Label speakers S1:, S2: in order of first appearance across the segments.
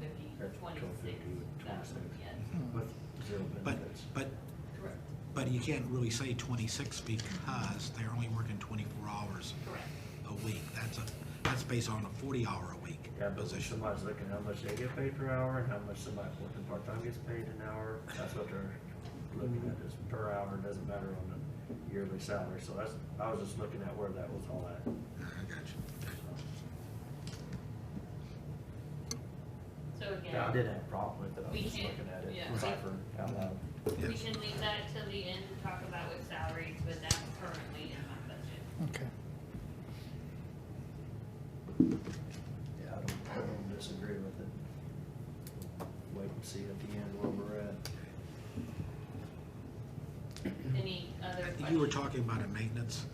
S1: fifty, twenty-six, thousand, yes.
S2: With zero
S3: But,
S2: benefits.
S3: but,
S1: Correct,
S3: but you can't really say twenty-six because they're only working twenty-four hours
S1: correct.
S3: a week. That's a, that's based on a forty-hour a week
S2: Yeah, but
S3: position.
S2: somebody's looking how much they get paid per hour and how much somebody working part-time gets paid an hour. That's what they're looking at, is per hour, doesn't matter on the yearly salary. So that's, I was just looking at where that was all at.
S3: I got you.
S1: So
S2: Yeah, I didn't
S1: again,
S2: have a problem with it. I was
S1: We
S2: just
S1: can-
S2: looking at
S1: yeah.
S2: it, ciphering out loud.
S1: we
S3: Yes.
S1: can leave that till the end to talk about with salaries, but that's currently in my budget.
S4: Okay.
S2: Yeah, I don't, I don't disagree with it. Wait and see at the end where we're at.
S1: Any other questions?
S3: You were talking about a maintenance.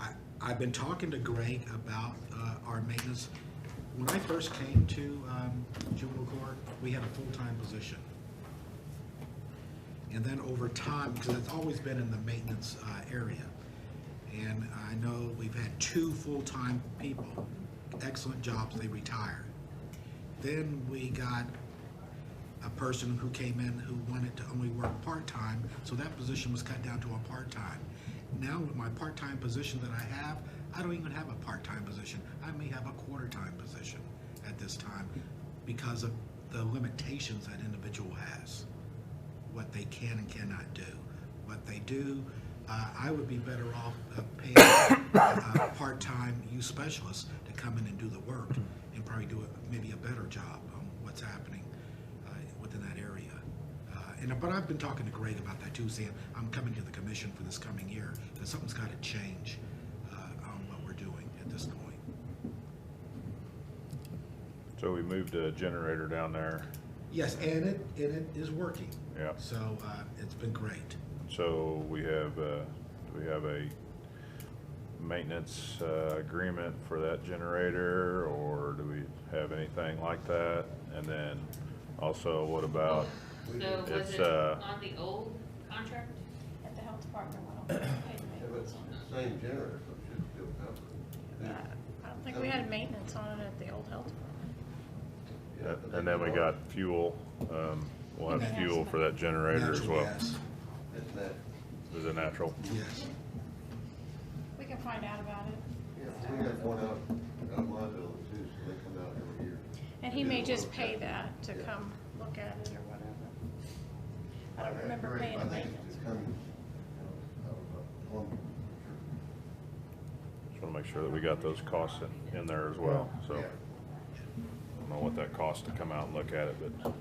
S3: I, I've been talking to Greg about, uh, our maintenance. When I first came to, um, juvenile court, we had a full-time position. And then over time, because it's always been in the maintenance, uh, area. And I know we've had two full-time people, excellent jobs, they retired. Then we got a person who came in who wanted to only work part-time, so that position was cut down to a part-time. Now with my part-time position that I have, I don't even have a part-time position. I may have a quarter-time position at this time because of the limitations that individual has, what they can and cannot do, what they do. Uh, I would be better off uh, paying a part-time youth specialist to come in and do the work and probably do a- maybe a better job on what's happening uh, within that area. Uh, And, but I've been talking to Greg about that too, saying, I'm coming to the commission for this coming year, that something's gotta change uh, on what we're doing at this point.
S5: So we moved a generator down there,
S3: Yes, and it, and it is working.
S5: Yeah.
S3: So uh, it's been great.
S5: so we have, uh, we have a maintenance, uh, agreement for that generator, or do we have anything like that? And then also, what about,
S1: So was
S5: Oh, It's,
S1: it
S5: uh,
S1: on the old contract?
S6: At the health department, we don't pay the
S7: It
S6: maintenance
S7: was
S6: on it. Uh,
S7: the same generator, so it should still cover it.
S6: I don't think we had maintenance on it at the old health department.
S7: Yeah, but
S5: and then we
S7: they-
S5: got fuel, um, we'll have fuel for that generator as
S3: Natural
S5: well.
S3: gas,
S7: It's that,
S5: Is it natural?
S3: Yes.
S6: We can find out about it.
S7: yeah, we have one out, out my building too, so they come out every year.
S6: And he
S7: They
S6: may
S7: do a
S6: just
S7: little
S6: pay
S7: check.
S6: that to
S7: Yeah.
S6: come look at it or whatever. I don't
S7: Okay,
S6: remember
S7: great.
S6: paying
S7: I
S6: the
S7: think
S6: maintenance.
S7: it's coming, you know, out of, uh, one,
S5: Just wanna make sure that we got those costs in, in there as well, so.
S7: Yeah.
S5: I don't know what that costs to come out and look at it, but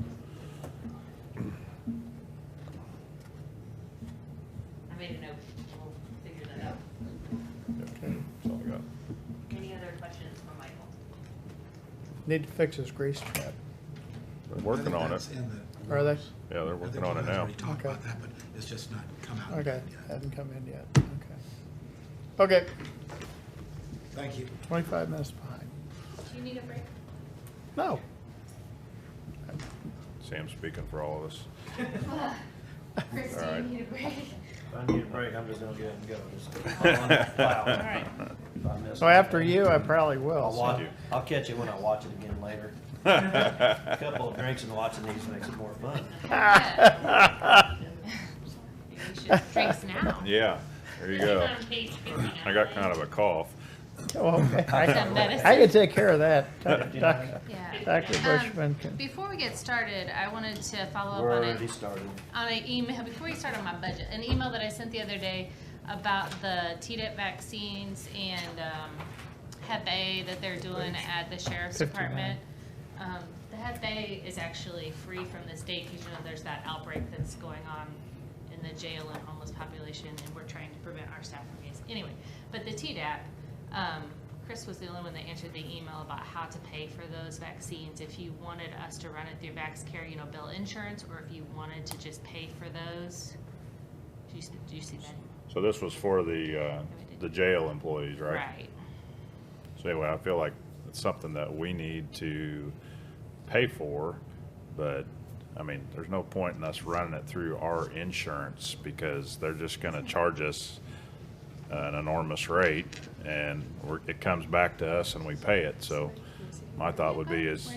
S1: I made a note, we'll figure that
S7: yeah.
S1: out.
S5: yeah, that's all I got.
S1: Any other questions for Michael?
S4: Need to fix this grease trap.
S5: They're
S3: I
S5: working
S3: think
S5: on it.
S3: that's in the-
S4: Are they?
S5: Yeah, they're
S3: I think
S5: working
S3: you
S5: on it
S3: guys
S5: now.
S3: already talked about
S4: Okay.
S3: that, but it's just not come out.
S4: Okay,
S3: yet.
S4: hadn't come in yet. Okay. Okay,
S3: Thank you.
S4: twenty-five minutes behind.
S1: Do you need a break?
S4: No.
S5: Sam's speaking for all of us.
S8: Christine, need a break.
S2: If I need a break, I'm just gonna get up and go, just.
S5: All
S6: All right,
S2: If I miss
S4: So
S2: one.
S4: after you, I probably
S2: I'll
S4: will.
S2: watch,
S5: you.
S2: I'll catch it when I watch it again later. A couple of drinks and watching these makes it more fun.
S8: Maybe we should drinks now.
S5: Yeah, there you go. I got kind of a cough.
S4: Oh, okay.
S8: Some
S4: I
S8: medicine.
S4: I can take care of that. Doc- doc-
S8: Yeah.
S4: Dr. Bushman
S8: Um,
S4: can.
S8: before we get started, I wanted to follow
S2: We're
S8: up on
S2: already
S8: a,
S2: started.
S8: on an email, before we start on my budget, an email that I sent the other day about the Tdap vaccines and, um, Hep A that they're doing at the sheriff's
S4: Fifty-nine.
S8: department. Um, the Hep A is actually free from the state, because you know there's that outbreak that's going on in the jail and homeless population, and we're trying to prevent our staff from getting, anyway. But the Tdap, um, Chris was the only one that answered the email about how to pay for those vaccines. If you wanted us to run it through VaxCare, you know, bill insurance, or if you wanted to just pay for those. Do you, s- do you see that?
S5: So this was for the, uh, the jail employees, right?
S8: Right.
S5: So anyway, I feel like it's something that we need to pay for, but, I mean, there's no point in us running it through our insurance because they're just gonna charge us an enormous rate and we're, it comes back to us and we pay it, so my thought would be is